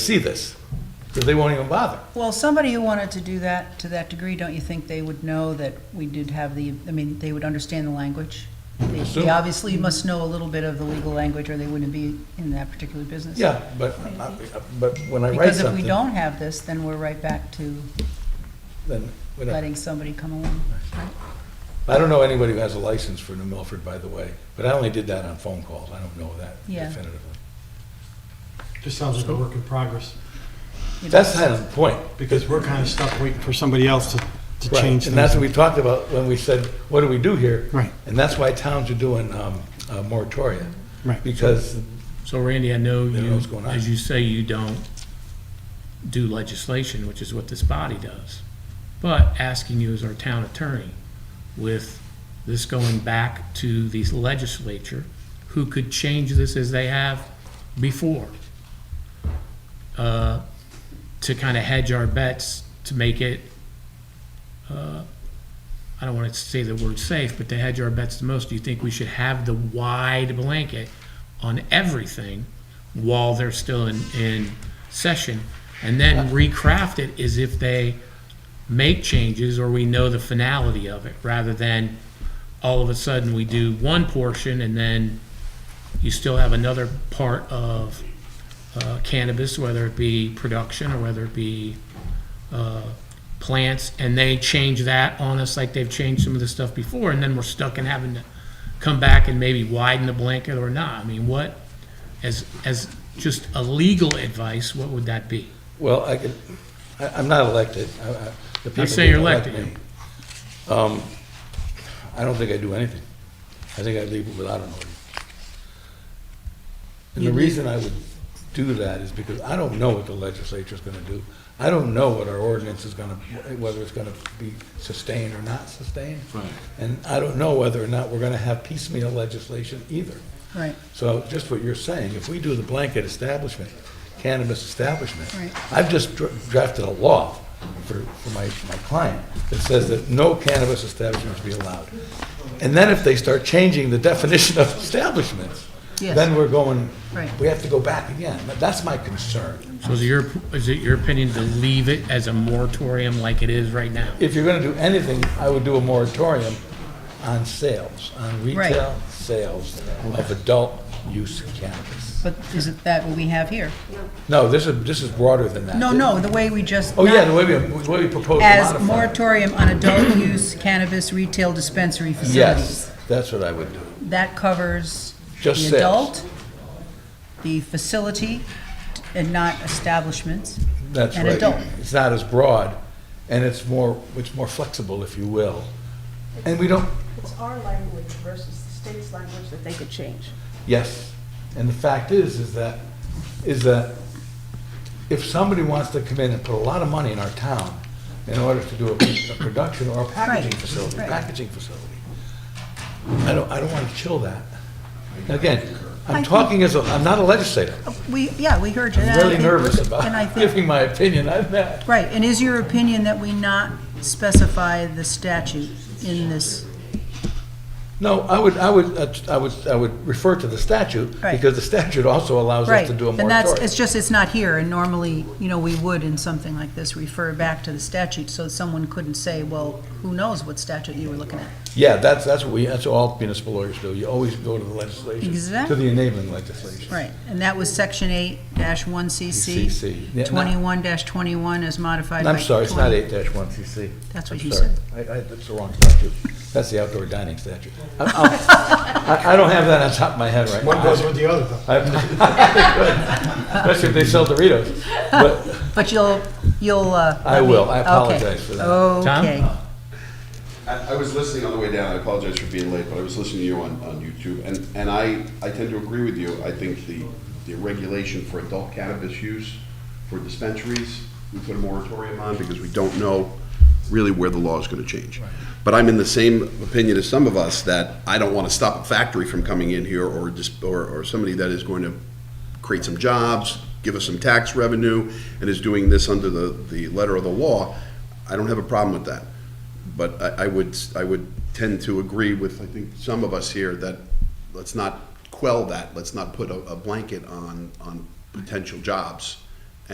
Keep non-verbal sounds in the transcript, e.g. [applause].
see this, because they won't even bother. Well, somebody who wanted to do that to that degree, don't you think they would know that we did have the, I mean, they would understand the language? They- Assume. They obviously must know a little bit of the legal language, or they wouldn't be in that particular business. Yeah, but, uh, but when I write Because if we something, don't have this, then we're right back to then we don't. letting somebody come along. I don't know anybody who has a license for New Milford, by the way, but I only did that on phone calls. I don't know that Yeah. definitively. Just sounds like a work in progress, You know, That's kind of the point. because we're kind of stuck waiting for somebody else to, to Right, change And that's what things. we talked about when we said, what do we do here? Right. And that's why towns are doing um, uh, moratoria. Right. Because, So Randy, I know They know you, what's going on. as you say, you don't do legislation, which is what this body does. But asking you as our town attorney, with this going back to the legislature, who could change this as they have before, uh, to kind of hedge our bets, to make it, uh, I don't want to say the word safe, but to hedge our bets the most, do you think we should have the wide blanket on everything while they're still in, in session? And then recraft it as if they make changes or we know the finality of it, rather than all of a sudden we do one portion and then you still have another part of uh, cannabis, whether it be production or whether it be uh, plants, and they change that on us like they've changed some of the stuff before, and then we're stuck in having to come back and maybe widen the blanket or not. I mean, what, as, as just a legal advice, what would that be? well, I could, I- I'm not elected. I- I- the people say you're didn't elect elected. me. Um, I don't think I do anything. I think I leave it without an order. And the You leave- reason I would do that is because I don't know what the legislature's gonna do. I don't know what our ordinance is gonna, whether it's gonna be sustained or not sustained. Right. And I don't know whether or not we're gonna have piecemeal legislation either. Right, So just what you're saying, if we do the blanket establishment, cannabis establishment, Right. I've just dra- drafted a law for, for my, my client that says that no cannabis establishment is to be allowed. And then if they start changing the [laughs] definition of establishments, Yes. then we're going, Right. we have to go back again. But That's my concern. So is it your, is it your opinion to leave it as a moratorium like it is right now? If you're gonna do anything, I would do a moratorium on sales, on retail sales of adult use cannabis. but isn't that what we have here? No, this is, this is broader than that. No, no, the way we just. Oh, yeah, not- the way we, the way we propose to As modify it. moratorium on adult use cannabis retail dispensary facilities. Yes, that's what I would do. That covers Just the sales. adult, the facility, and not establishments. That's And right. adult. It's not as broad, and it's more, it's more flexible, if you will. And we don't, It's our language versus the state's language that they could change. yes, and the fact is, is that, is that if somebody wants to come in and put a lot of money in our town in order to do a a production or a packaging Right, facility, right. packaging facility, I don't, I don't want to chill that. Again, I'm think- talking as a, I'm not a legislator. We, yeah, we heard you. And I'm I really think- nervous And I about think, giving my opinion on that. right, and is your opinion that we not specify the statute in this? No, I would, I would, uh, I would, I would refer to the statute, Right. because the statute also allows us Right, to do a and that's, moratorium. it's just, it's not here, and normally, you know, we would in something like this refer back to the statute, so someone couldn't say, well, who knows what statute you were looking at? Yeah, that's, that's what we, that's what all municipal lawyers do, you always go to the legislation, to Exactly. the enabling legislation. Right, and that was section eight dash one CC, CC. Yeah, no. twenty-one dash twenty-one as And modified by. I'm sorry, it's not 20. eight dash one CC. That's I'm what you sorry. said. I, I, that's the wrong statute, that's the outdoor dining statute. I, I'm- I- I don't have that on top of my head right One goes now. with the other, [laughs] though. I'm- Especially if they sell Doritos, but, But you'll, you'll, uh. I let me- will. I okay. apologize for that. Tom? Okay. I, I was listening on the way down. I apologize for being late, but I was listening to you on, on YouTube, and, and I, I tend to agree with you. I think the, the regulation for adult cannabis use for dispensaries, we put a moratorium on because we don't know really where the law is going to change. But I'm in the same opinion as some of us that I don't want to stop a factory from coming in here or just or, or somebody that is going to create some jobs, give us some tax revenue, and is doing this under the, the letter of the law. I don't have a problem with that. But I, I would, I would tend to agree with, I think, some of us here that let's not quell that, let's not put a, a blanket on, on potential jobs